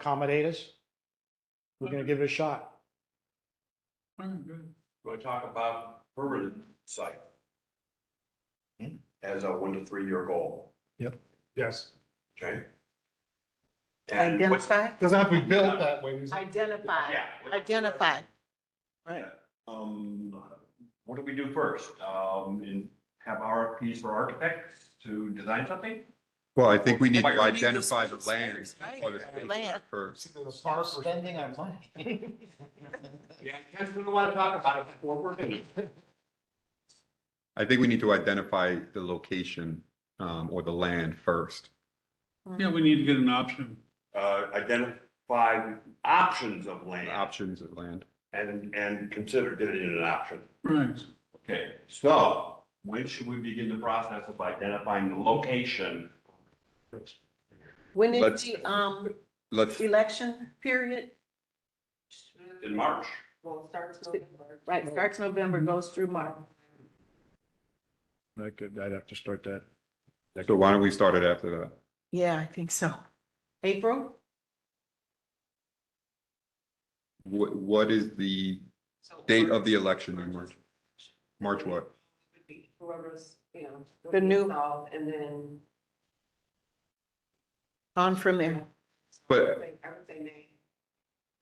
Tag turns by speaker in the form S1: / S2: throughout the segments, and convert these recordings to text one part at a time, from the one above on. S1: accommodate us, we're gonna give it a shot.
S2: Do I talk about permanent site?
S1: Hmm.
S2: As a one to three year goal,
S3: Yes,
S2: okay? And what's-
S4: Identify,
S3: doesn't have to be built that way. is it?
S4: identify,
S2: Yeah, what's-
S4: identify.
S2: Um, what do we do first? Um, and have RFPs for architects to design something?
S5: Well, I think we need to
S2: Why are we
S5: identify the
S2: using
S5: land.
S4: Right,
S5: for the space
S4: land.
S5: first.
S3: The park or-
S6: Spending our money.
S2: Yeah, I just don't want to talk about it before we're finished.
S5: I think we need to identify the location um, or the land first.
S7: Yeah, we need to get an option.
S2: Uh, identify options of
S5: the
S2: land
S5: Options of land.
S2: and, and consider giving it an option.
S7: Right.
S2: Okay, so when should we begin the process of identifying the location?
S4: When
S5: Let's-
S4: is the, um,
S5: Let's,
S4: election period?
S2: In March?
S4: Right, starts November, goes through March.
S3: I could, I'd have to start that.
S5: so why don't we start it after that?
S4: Yeah, I think so. April?
S5: What, what is the date of the election in March? March what?
S8: Whoever's, you know.
S4: The new-
S8: resolved, And then.
S4: On from there.
S5: But-
S8: I would say- I would say May.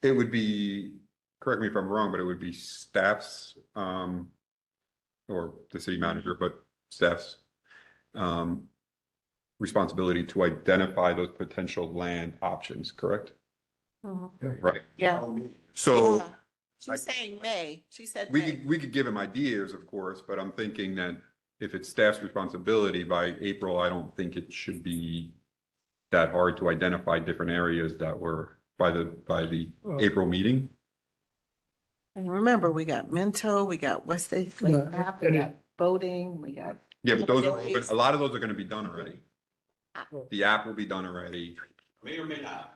S5: It would be, correct me if I'm wrong, but it would be staff's, um, or the city manager, but staff's, um, responsibility to identify those potential land options, correct?
S4: Mm-hmm.
S5: Right.
S4: Yeah.
S2: Um,
S5: So
S4: Yeah. She's saying May. She said
S5: Oh. we
S4: May.
S5: could, we could give him ideas, of course, but I'm thinking that if it's staff's responsibility by April, I don't think it should be that hard to identify different areas that were by the, by the
S3: Well-
S5: April meeting.
S4: And remember, we got mental, we got what's they, we
S3: Yeah, and it-
S4: got voting, we got,
S5: Yeah, but those, are-
S4: Yeah.
S5: but a lot of those are gonna be done already. The app will be done already,
S2: May or may not.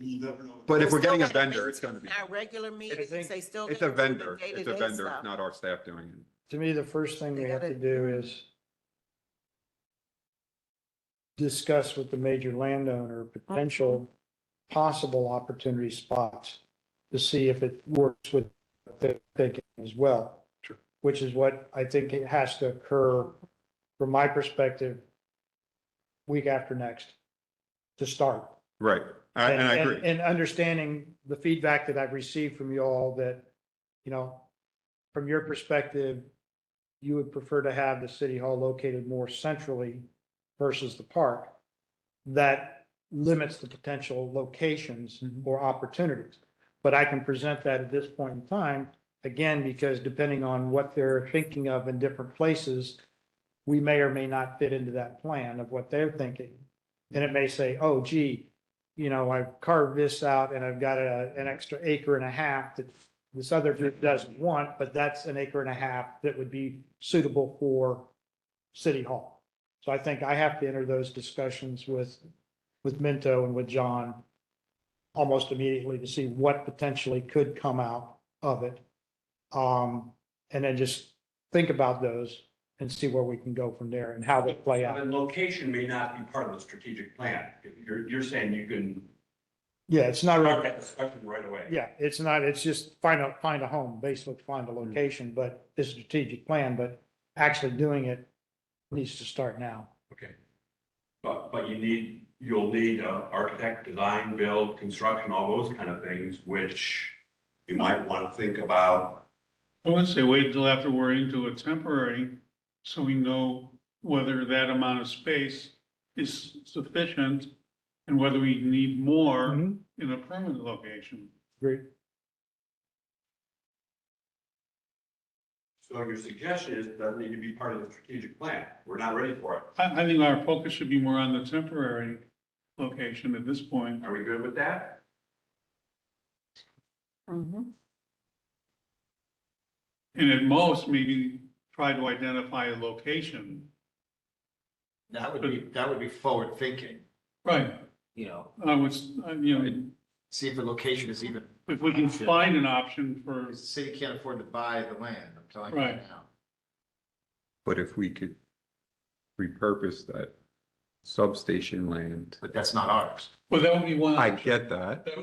S2: You never know.
S5: but if we're
S4: Still
S5: getting a
S4: gotta
S5: vendor, it's gonna be,
S4: our regular meetings,
S1: think-
S4: they still.
S5: it's a
S4: gotta do the
S5: vendor, it's a
S4: day-to-day
S5: vendor,
S4: stuff.
S5: it's not our staff doing it.
S1: To me, the first thing we have to do is discuss with the major landowner potential possible opportunity spots to see if it works with their thinking as well. Which is what I think it has to occur, from my perspective, week after next, to start.
S5: Right, I- and I
S1: and-
S5: agree,
S1: And understanding the feedback that I've received from you all that, you know, from your perspective, you would prefer to have the city hall located more centrally versus the park. That limits the potential locations
S5: Mm-hmm.
S1: or opportunities. But I can present that at this point in time, again, because depending on what they're thinking of in different places, we may or may not fit into that plan of what they're thinking. And it may say, oh gee, you know, I've carved this out and I've got a, an extra acre and a half that this other group doesn't want, but that's an acre and a half that would be suitable for city hall. So I think I have to enter those discussions with, with Minto and with John almost immediately to see what potentially could come out of it. Um, and then just think about those and see where we can go from there and how they play out.
S2: And location may not be part of the strategic plan. You're, you're saying you can
S1: Yeah, it's not really.
S2: start that discussion right away.
S1: Yeah, it's not, it's just find a, find a home, basically find a location, but this is a strategic plan, but actually doing it needs to start now.
S2: Okay. But, but you need, you'll need uh, architect, design, build, construction, all those kind of things, which you might want to think about.
S7: I would say wait until after we're into a temporary, so we know whether that amount of space is sufficient and whether we need more
S1: Mhm,
S7: in a permanent location.
S1: Great.
S2: So your suggestion is doesn't need to be part of the strategic plan. We're not ready for it.
S7: I, I think our focus should be more on the temporary location at this point.
S2: Are we good with that?
S4: Mhm.
S7: And at most, maybe try to identify a location.
S6: That would be, that would be forward thinking,
S7: Right.
S6: you know,
S7: I was, you know,
S6: see if the location is even,
S7: if we can find an option for,
S6: because the city can't afford to buy the land, I'm telling you
S7: Right.
S6: now.
S5: but if we could repurpose that
S7: substation land.
S9: but that's not ours.
S5: Well, that would be one.
S7: I
S5: option.
S7: get that.
S5: That would